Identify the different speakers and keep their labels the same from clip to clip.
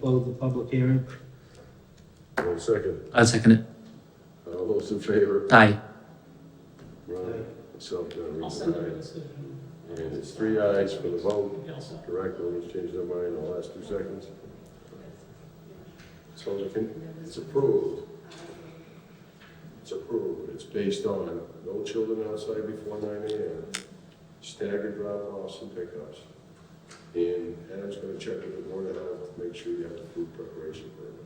Speaker 1: close the public hearing.
Speaker 2: One second. Uh,
Speaker 3: I'll second it.
Speaker 2: All those in favor?
Speaker 3: Aye.
Speaker 2: Ryan, myself, John
Speaker 4: I'll
Speaker 2: Reed,
Speaker 4: send them a
Speaker 2: aye.
Speaker 4: decision.
Speaker 2: And it's three ayes for the vote.
Speaker 4: Yeah, I'll send-
Speaker 2: Correct, no one's changed their mind in the last two seconds. So they can- it's approved. It's approved. It's based on no children outside before nine AM, staggered drop-offs and pickups. And Adam's gonna check with the board of health to make sure you have the food preparation permit.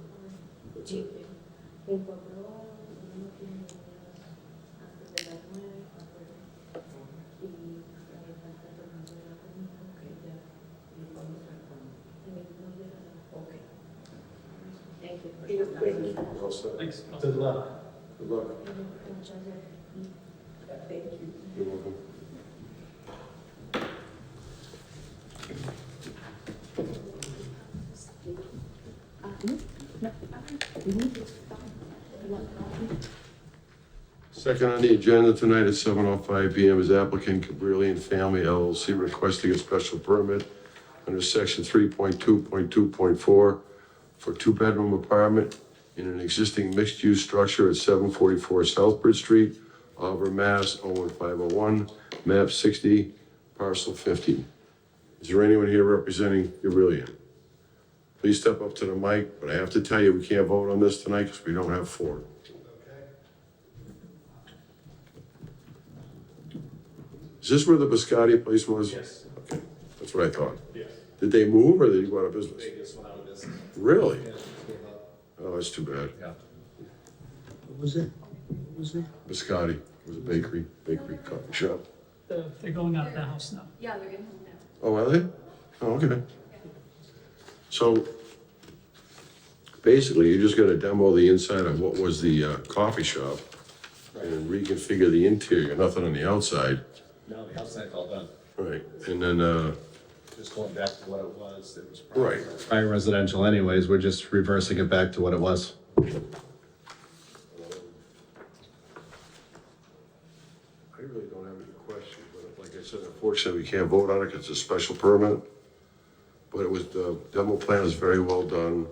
Speaker 2: That's it. Thank you. You're all set.
Speaker 4: Thanks. I'll-
Speaker 1: Good luck.
Speaker 2: Good luck. You're welcome. Second on the agenda tonight at seven oh five P M is applicant Cabrillion Family LLC requesting a special permit under section three point two point two point four for two-bedroom apartment in an existing mixed-use structure at seven forty-four Southbridge Street, Auburn, Mass. 01501, map sixty, parcel fifty. Is there anyone here representing Cabrillion? Please step up to the mic, but I have to tell you, we can't vote on this tonight because we don't have four. Is this where the Biscotti place was?
Speaker 5: Yes,
Speaker 2: Okay, that's what I thought.
Speaker 5: yes.
Speaker 2: Did they move or did they go out of business?
Speaker 5: They just went out of business.
Speaker 2: Really?
Speaker 5: Yeah, just gave up.
Speaker 2: Oh, that's too bad.
Speaker 5: Yeah.
Speaker 1: What was it? What was it?
Speaker 2: Biscotti was a bakery, bakery coffee shop.
Speaker 4: They're they're going out of the house now.
Speaker 6: Yeah, they're getting home now.
Speaker 2: Oh, are they? Oh, okay. So basically, you're just gonna demo the inside of what was the uh, coffee shop and reconfigure the interior, nothing on the outside.
Speaker 5: No, the outside's all done.
Speaker 2: Right, and then, uh,
Speaker 5: Just going back to what it was. It was
Speaker 2: right,
Speaker 5: prior residential anyways. We're just reversing it back to what it was.
Speaker 2: I really don't have any questions, but like I said, unfortunately, we can't vote on it because it's a special permit. But it was, the demo plan is very well done,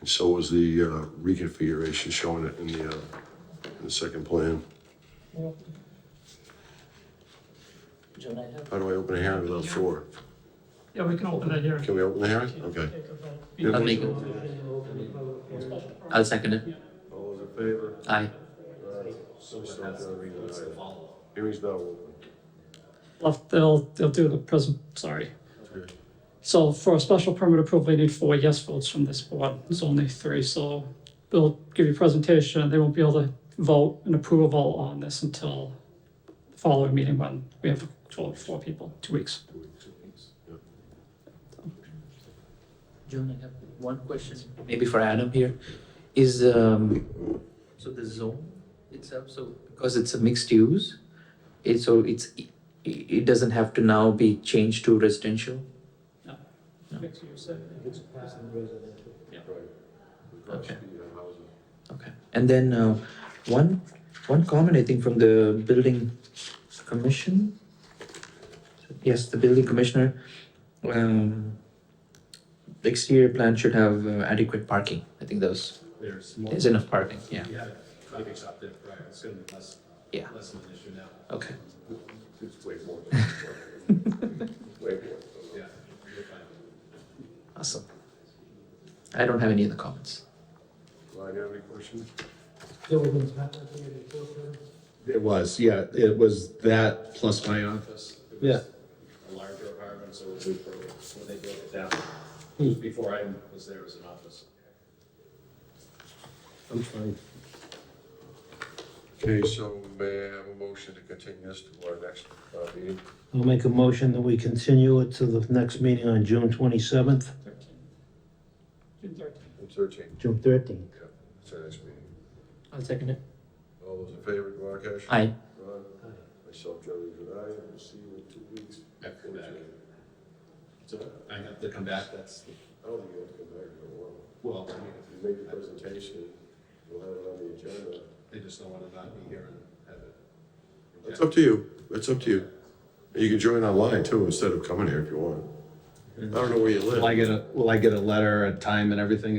Speaker 2: and so was the uh, reconfiguration showing it in the, uh, in the second plan. How do I open a hearing without four?
Speaker 4: Yeah, we can open that hearing.
Speaker 2: Can we open the hearing? Okay.
Speaker 4: Take a vote.
Speaker 3: I'll make it. I'll second it.
Speaker 2: All those in favor?
Speaker 3: Aye.
Speaker 5: So it has to be what's the follow-up.
Speaker 2: Hearing's now open.
Speaker 4: Well, they'll, they'll do the present, sorry. So for a special permit approval, they need four yes votes from this board. There's only three, so they'll give you a presentation. They won't be able to vote an approval on this until the following meeting when we have total four people, two weeks.
Speaker 3: John, I have one question, maybe for Adam here. Is, um, so the zone itself, so because it's a mixed use, it, so it's, it, it doesn't have to now be changed to residential? Okay. Okay, and then, uh, one, one comment, I think, from the building commission? Yes, the building commissioner, um, the exterior plan should have uh, adequate parking, I think those,
Speaker 5: There's more.
Speaker 3: there's enough parking, yeah,
Speaker 5: Yeah, coffee shop there prior. It's gonna be less,
Speaker 3: yeah,
Speaker 5: less of an issue now.
Speaker 3: okay.
Speaker 2: It's way more. than- Way more.
Speaker 5: Yeah. you're fine.
Speaker 3: Awesome. I don't have any other comments.
Speaker 2: Ryan, you have any questions?
Speaker 5: It was, yeah, it was that plus my office. It was A larger apartment, so it was when they built it down. It was Before I was there, it was an office.
Speaker 2: I'm fine. Okay, so may I have a motion to continue this to our next uh, meeting?
Speaker 7: I'll make a motion that we continue it to the next meeting on June twenty-seventh,
Speaker 4: June thirteenth.
Speaker 2: It's thirteen,
Speaker 7: June thirteenth.
Speaker 2: it's our next meeting.
Speaker 3: I'll second it.
Speaker 2: All those in favor, Duarkesh?
Speaker 3: Aye.
Speaker 2: Ron? Myself, Joe, and I, and we'll see you in two weeks.
Speaker 5: After that. So I have to come back, that's,
Speaker 2: I don't think you have to come back in a while.
Speaker 5: well, I mean,
Speaker 2: If you make the presentation, we'll have it on the agenda.
Speaker 5: they just don't want to not be here and have it.
Speaker 2: It's up to you, it's up to you. You can join online too, instead of coming here if you want. I don't know where you live.
Speaker 5: Will I get a, will I get a letter, a time and everything